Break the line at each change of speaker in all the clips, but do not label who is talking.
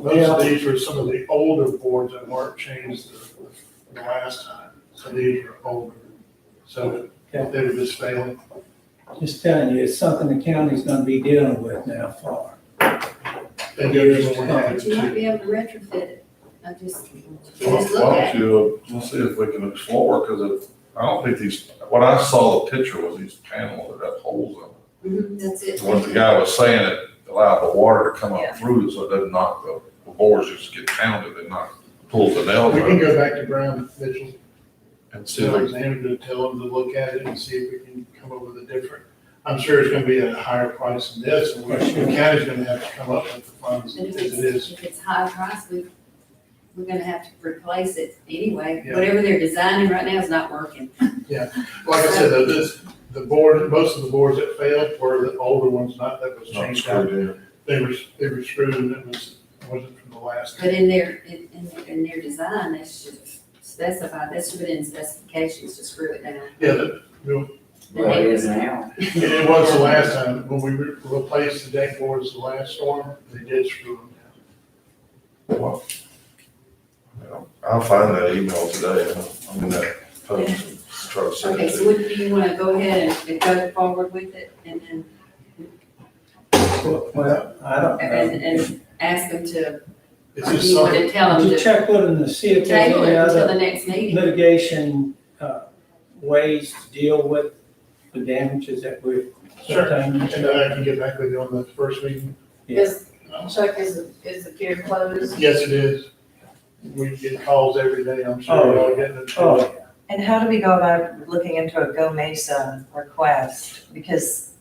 Those, these were some of the older boards that Mark changed the, the last time, so these are older. So they were just failing.
Just telling you, it's something the county's gonna be dealing with now for.
They do this one had
But you might
to.
be able to retrofit it. I just,
Why
just look
don't
at it.
you, uh, let's see if we can explore, because I don't think these, what I saw the picture was these panels that have holes in
Mhm, That's it.
them. What the guy was saying, it allowed the water to come up through, so it doesn't knock the, the boards just get pounded and not pull the nails
We can
out.
go back to Brown Mitchell,
And see,
to Alexander, to tell him to look at it and see if we can come up with a different. I'm sure it's gonna be at a higher price than this, and we- the county's gonna have to come up with the funds
And
as
if
it
it's,
is.
if it's high price, we, we're gonna have to replace it anyway.
Yeah.
Whatever they're designing right now is not working.
Like I said, though, this, the board, most of the boards that failed were the older ones, not that was
it's not
changed out.
screwed in.
They were, they were screwed and it was, wasn't from the last.
But in their, in, in- in their design, they should specify, that should have been in specifications to screw it down.
Yeah, that-
Well, it is now.
and it was the last time, when we re- replaced the deck boards the last storm, they did screw them down.
Well, you know, I'll find that email today, I'm in that post, and try to send
Okay,
it to
so what, do you wanna go ahead and- and go forward with it and then,
Well, I don't know.
and, and ask them to,
It's
or do
just
you wanna
something,
tell them
Did you
to
check with them to see if there's
table it
any
until
other
the next meeting?
litigation, uh, ways to deal with the damages that we're.
Sure.
sometimes-
and then I can get back with you on the first meeting.
Yeah.
Is, Chuck, is, is the pier closed?
Yes, it is. We get calls every day, I'm sure,
Oh.
we're all getting it.
Oh,
And how do we go about looking into a Go Mesa request? Because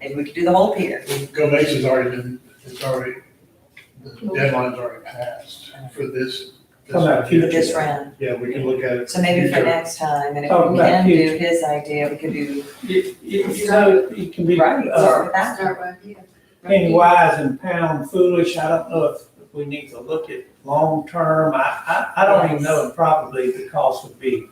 maybe we could do the whole pier.
Go Mesa's already been, it's already, the deadline's already passed for this. this-
Talking about
for this
future.
round.
Yeah, we can look at it.
So maybe for
Future.
next time, and if
Talking
we
about
can
future.
do his idea, we could do,
You, you you know, it can be,
right,
uh,
start with that.
Start right here. Right
being
here.
wise and pound foolish, I don't know if we need to look at long-term, I, I, I don't even know if probably the cost would be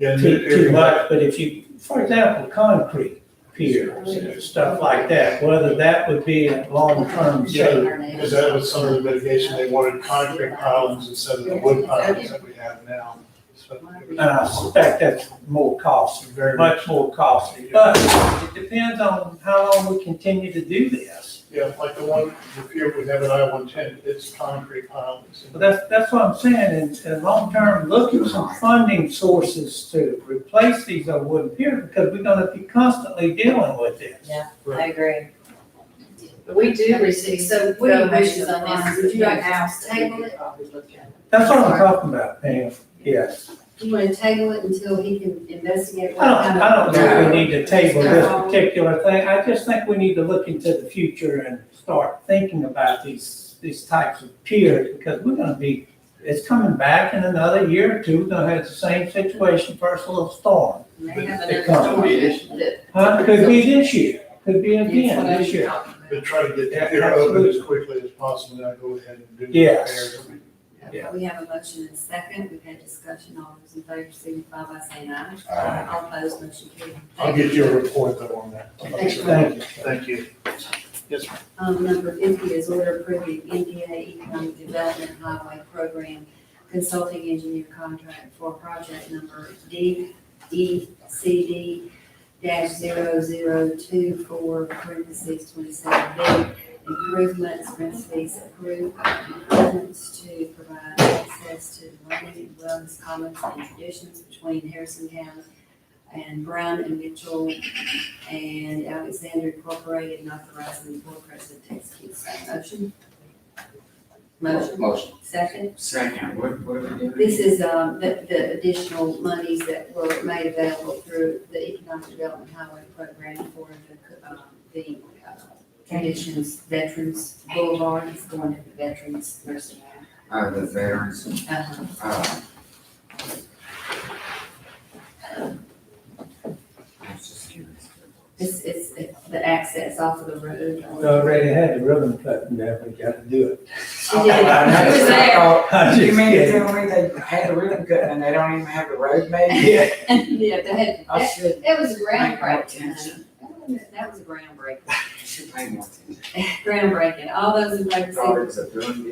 Yeah, and
too, too
everybody-
much, but if you, for example, concrete piers and stuff like that, whether that would be a long-term
Yeah.
solution.
Because that was some of the mitigation, they wanted concrete pilings instead of the wood pilings that we have now. So it
And I suspect that's more costly,
was very much,
much more costly, but it depends on how long we continue to do this.
yeah, like the one, the pier we have at I one ten, it's concrete pilings.
But that's, that's what I'm saying, and, and long-term, look at some funding sources to replace these old wooden piers, because we're gonna be constantly dealing with this.
I agree.
We do receive.
So what are your wishes on this? Would you like to table it?
That's what I'm talking about, Pam, yes.
Do you want to table it until he can investigate? what
I don't, I don't
kind of-
think we need to table this particular thing, I just think we need to look into the future and start thinking about these, these types of piers, because we're gonna be, it's coming back in another year or two, we're gonna have the same situation, first little storm.
May have
It
another
comes.
storm
Huh, could be this year, could be
that- Yes,
again
what I'm
this year.
talking about.
But try to get that pier open as quickly as possible, then I go ahead and do the
Yes.
repairs.
Yeah.
We have a motion and second. We've had discussion. All those in favor signify by saying aye.
Aye.
All opposed, motion carried.
I'll get you a report though on that.
Thank you.
Thank you.
Thank you. Yes, ma'am.
Um, number fifty is order approving NDA Economic Development Highway Program Consulting Engineer Contract for project number D, E, C, D dash zero zero two four parentheses twenty-seven B. Improvements, parentheses, approve improvements to provide access to the running wellness commons and traditions between Harrison County and Brown and Mitchell and Alexander Incorporated, and authorizing the board president to execute said motion. Motion,
Motion.
second.
Second, what, what are we doing?
This is, um, the, the additional monies that were made available through the Economic Development Highway Program for the, um, the uh, conditions, Veterans Boulevard is going to the Veterans Nursing Home.
Uh, the veterans,
Uh-huh.
uh. I was just curious.
This is the- the access off of the road.
We already had the ribbon cutting there, we gotta do it.
She did, it was there.
Oh,
I'm
You
just
mean to
kidding.
tell me they had a ribbon cut and they don't even have the road made?
Yeah,
Yeah, they had,
I
that,
should,
that was groundbreaking.
Attention.
honey. That was a groundbreaking.
should pay more attention.
groundbreaking. All those in favor,
Daughters of doing